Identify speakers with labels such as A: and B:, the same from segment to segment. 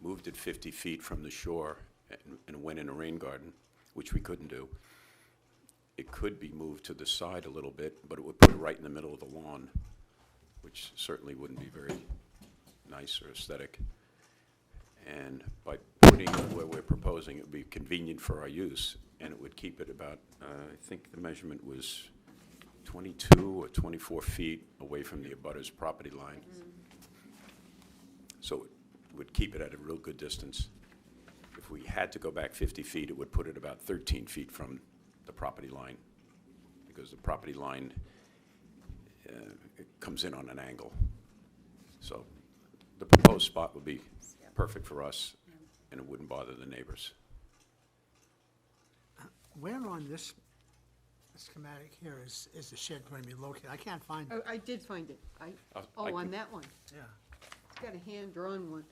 A: moved it 50 feet from the shore and- and went in a rain garden, which we couldn't do, it could be moved to the side a little bit, but it would put it right in the middle of the lawn, which certainly wouldn't be very nice or aesthetic. And by putting it where we're proposing, it would be convenient for our use, and it would keep it about, uh, I think the measurement was 22 or 24 feet away from the abutter's property line. So it would keep it at a real good distance. If we had to go back 50 feet, it would put it about 13 feet from the property line, because the property line uh, it comes in on an angle. So the proposed spot would be perfect for us, and it wouldn't bother the neighbors.
B: Where on this schematic here is, is the shed going to be located? I can't find it.
C: Oh, I did find it. I,
A: I- I
C: oh, on
A: can-
C: that one.
B: Yeah.
C: It's got a hand-drawn one.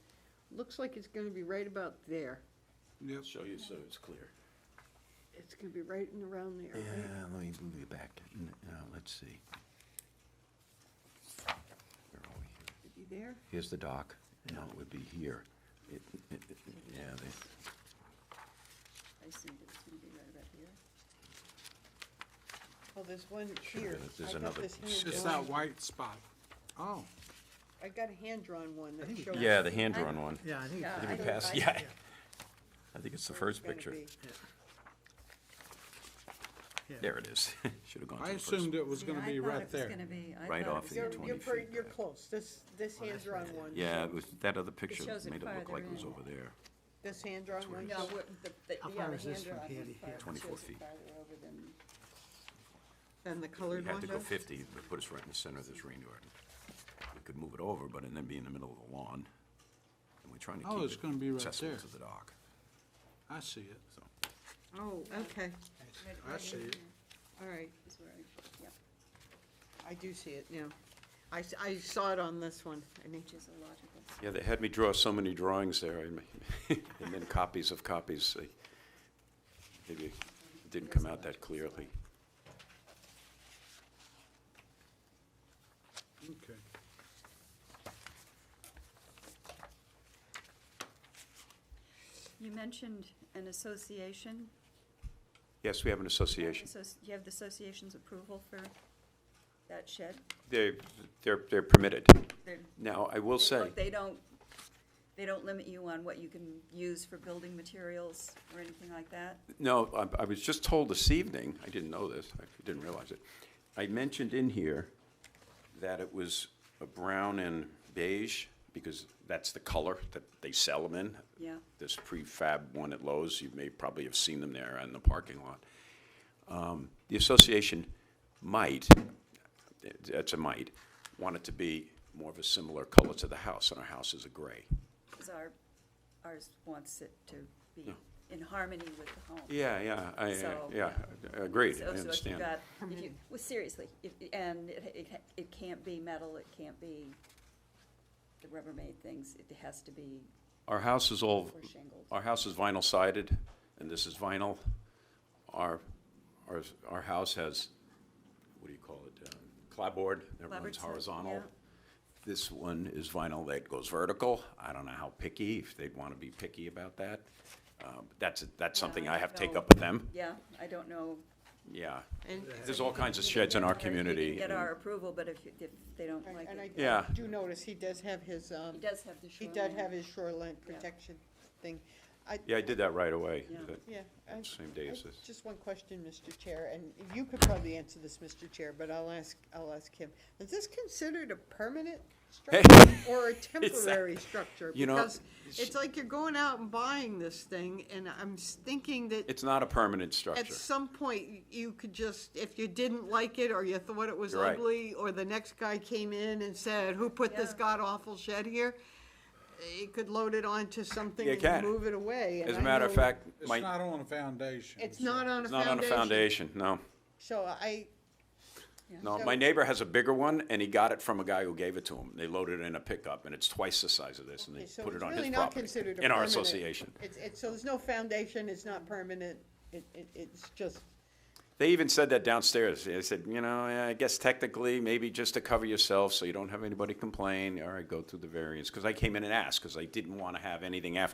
C: Looks like it's gonna be right about there.
D: Yep.
A: Show you so it's clear.
C: It's gonna be right and around there, right?
A: let me move you back. uh, let's see. Where are we here?
C: Could be there.
A: Here's the dock, No, it would be here. It, it, it- yeah, they,
C: I see that it's gonna be right about here. Oh, there's one here.
A: Sure, there's
C: I got
A: another-
C: this
A: It's
D: It's
C: hand-drawn-
D: that white spot. Oh,
C: I got a hand-drawn one that
B: think it-
C: shows.
A: yeah, the hand-drawn
C: I-
A: one.
B: Yeah, I think,
C: Yeah,
A: I
C: I
A: think we
C: don't-
A: passed,
C: I-
A: yeah.
B: yeah.
A: I think it's the
C: where it's
A: first
C: gonna
A: picture.
C: be.
B: yeah.
A: There it is. Should have gone to
D: I
A: the first.
D: assumed it was
E: Yeah,
D: gonna
E: I
D: be
E: thought
D: right
E: it was
D: there.
E: gonna be- I
A: Right
E: thought it
A: off
E: was
A: the
C: You're,
E: gonna
A: 20
C: you're,
A: feet
C: pretty- you're
A: back.
C: close. This, this hand-drawn one.
A: Yeah, it was, that other picture
E: shows it
A: made it look
E: farther
A: like it was
E: in.
A: over there.
C: This hand-drawn one.
E: No, we're- the- the-
B: How
E: yeah,
B: far
E: the
B: is this
E: hand
B: from
E: drawn
B: here
E: was
B: to
E: farther.
B: here?
A: 24
E: Shows it
A: feet.
E: farther over than-
C: Than the
A: We
C: colored one
A: had to go
C: does.
A: fifty, but put us right in the center of this rain garden. We could move it over, but and then be in the middle of the lawn. And we're trying to
D: Oh, it's
A: keep
D: gonna be
A: it
D: right
A: accessible
D: there.
A: to the dock.
D: I see it.
A: So
C: Oh, okay,
D: I see it.
C: all right.
E: is where I- yep,
C: I do see it now. I, s- I saw it on this one. I mean,
E: Which is a logical.
A: Yeah, they had me draw so many drawings there, and and then copies of copies. they- Maybe it didn't come out that clearly.
D: Okay.
E: You mentioned an association.
A: Yes, we have an association.
E: Associ- You have the association's approval for that shed?
A: They, they're, they're permitted.
E: They're-
A: Now, I will
E: they
A: say,
E: don't- They don't, they don't limit you on what you can use for building materials or anything like that?
A: no, I- I was just told this evening, I didn't know this, I didn't realize it. I mentioned in here that it was a brown and beige, because that's the color that they sell them in.
E: Yeah.
A: This prefab one at Lowe's, you may probably have seen them there in the parking lot. Um, the association might, that's a might, want it to be more of a similar color to the house, and our house is a gray.
E: Because our, ours wants it to be
A: Yeah.
E: in harmony with the home.
A: Yeah, yeah, I,
E: So-
A: yeah, agreed, I
E: So- So if you
A: understand.
E: got, if you, well, seriously, if, and it, it, ha- it can't be metal, it can't be the Rubbermaid things, it has to be,
A: Our house is all,
E: Or shingles.
A: our house is vinyl sided, and this is vinyl. Our, our, our house has, what do you call it, um, clapboard that
E: Clapboard
A: runs
E: side,
A: horizontal.
E: yeah.
A: This one is vinyl that goes vertical. I don't know how picky, if they'd want to be picky about that. Um, That's, that's something I have to take up with them.
E: yeah, I don't know.
A: Yeah,
C: and,
A: there's all kinds of
E: You can
A: sheds in
E: get
A: our
E: our- you can
A: community.
E: Get
A: and-
E: our approval, but if, you- if they don't
C: and
E: like
C: and I
E: it,
A: Yeah.
C: do notice he does have his, um,
E: he does have the
C: he
E: shoreline.
C: does have his shoreline protection thing. I,
A: Yeah, I did that right away,
E: Yeah.
A: that
C: yeah, I-
A: same day
C: I-
A: as this.
C: Just one question, Mr. Chair, and you could probably answer this, Mr. Chair, but I'll ask, I'll ask him. Is this considered a permanent structure or a temporary structure?
A: you know,
C: Because It's like you're going out and buying this thing, and I'm s- thinking that
A: It's not a permanent
C: At
A: structure.
C: some point, y- you could just, if you didn't like it, or you thought it was
A: You're right.
C: ugly, or the next guy came in and said, who put this
E: Yeah.
C: god-awful shed here? You could load it onto something
A: You
C: and
A: can.
C: move it away. and
A: As a
C: I
A: matter of
C: know
A: fact,
D: It's
A: my,
D: not on a foundation.
C: It's
D: so-
C: not on a
A: it's not on a
C: foundation.
A: foundation, no.
C: So I,
A: No,
C: So-
A: my neighbor has a bigger one, and he got it from a guy who gave it to him. They loaded it in a pickup, and it's twice the size of this, and they
C: okay, so
A: put
C: it's
A: it on his
C: really not
A: property.
C: considered a
A: In our
C: permanent-
A: association.
C: It's, it's, so there's no foundation, it's not permanent, it, it, it's just,
A: They even said that downstairs. They said, you know, yeah, I guess technically, maybe just to cover yourself so you don't have anybody complain, all right, go through the variance. Because I came in and asked, because I didn't want to have anything after